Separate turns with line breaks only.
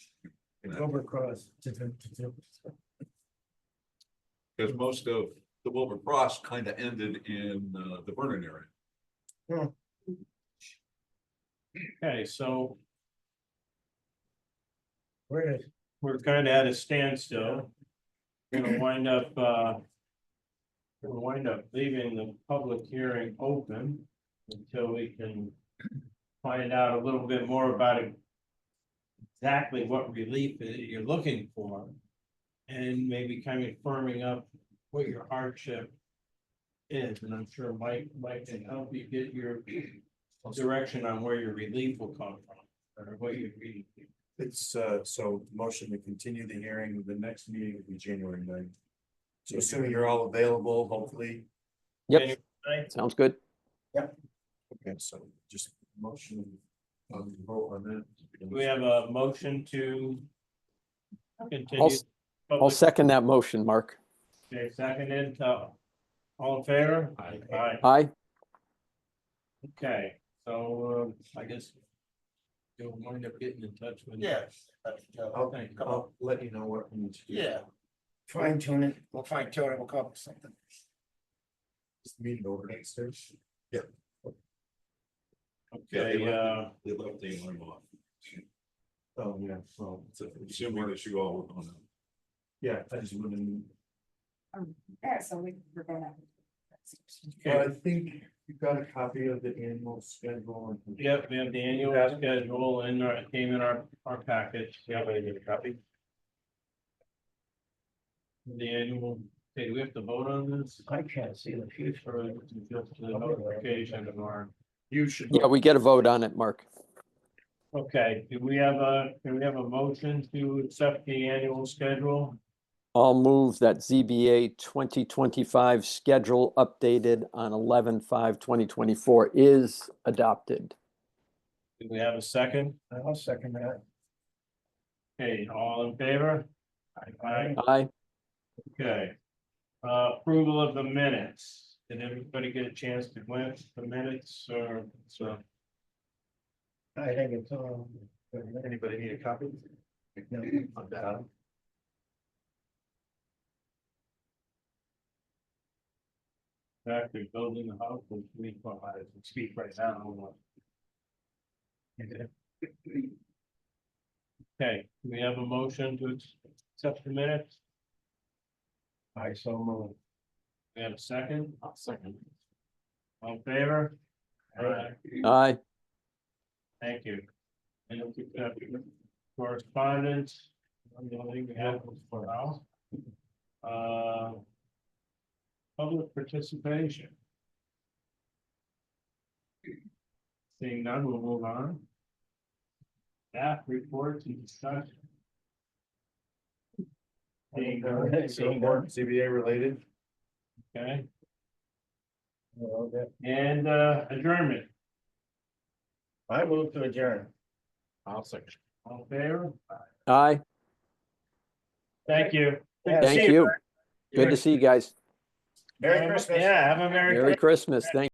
Cobra Cross.
Because most of the Wilbur Cross kind of ended in uh, the Vernon area.
Okay, so
Where is?
we're kind of at a standstill. Gonna wind up, uh. Gonna wind up leaving the public hearing open until we can. Find out a little bit more about it. Exactly what relief that you're looking for. And maybe kind of firming up what your hardship. Is, and I'm sure Mike, Mike can help you get your direction on where your relief will come from, or what you really
It's, uh, so motion to continue the hearing, the next meeting will be January ninth. So assuming you're all available, hopefully.
January
Yep,
ninth.
sounds good.
Okay, so just motion, um, vote on that.
We have a motion to continue.
I'll, s- I'll
public-
second that motion, Mark.
Okay, Seconded, uh, all in favor? Aye.
Aye,
okay, so, um, I guess you'll wind up getting in touch with.
Yes.
I'll,
Thank you.
I'll let you know what we need to do.
Yeah. Fine tune it, we'll fine tune it, we'll come up with something.
Just Meeting over next Thursday.
Okay, uh,
They left the alarm off.
Oh, yeah, so,
So Assuming that you all were on it.
yeah, I just wouldn't.
Yeah, so we, we're gonna.
But I think you got a copy of the annual schedule. and-
yep, we have the annual schedule in our, came in our, our package, you have any copy? The annual, okay, do we have to vote on this?
I can't see the
Or is it Just the notification of our.
You should.
yeah, we get a vote on it, Mark.
Okay, do we have a, do we have a motion to accept the annual schedule?
I'll move that ZBA 2025 schedule updated on 11/5/2024 is adopted.
Do we have a second?
I'll second that.
Okay, all in favor? Aye,
Aye,
okay. Uh, approval of the minutes. Did everybody get a chance to glance at the minutes or, so,
I think it's, um.
Anybody need a copy?
No.
Of that?
fact, they're building the house, which we, well, I can speak right now. I don't know. Okay, do we have a motion to accept the minutes?
I so move.
We have a second? I'll second. All in favor? Aye.
aye.
Thank you. And if we have correspondence, I don't think we have one for now. Uh, Public participation. Seeing none, we'll move on. Staff reports and discussion. Seeing none,
So more CBA related.
okay,
Okay.
and uh, adjournment,
I move to adjourn.
all in favor?
Aye,
Thank you. Good to see
thank you. Good
Merry-
to see you guys.
Merry Christmas.
Yeah, have a Merry.
Merry Christmas. Thank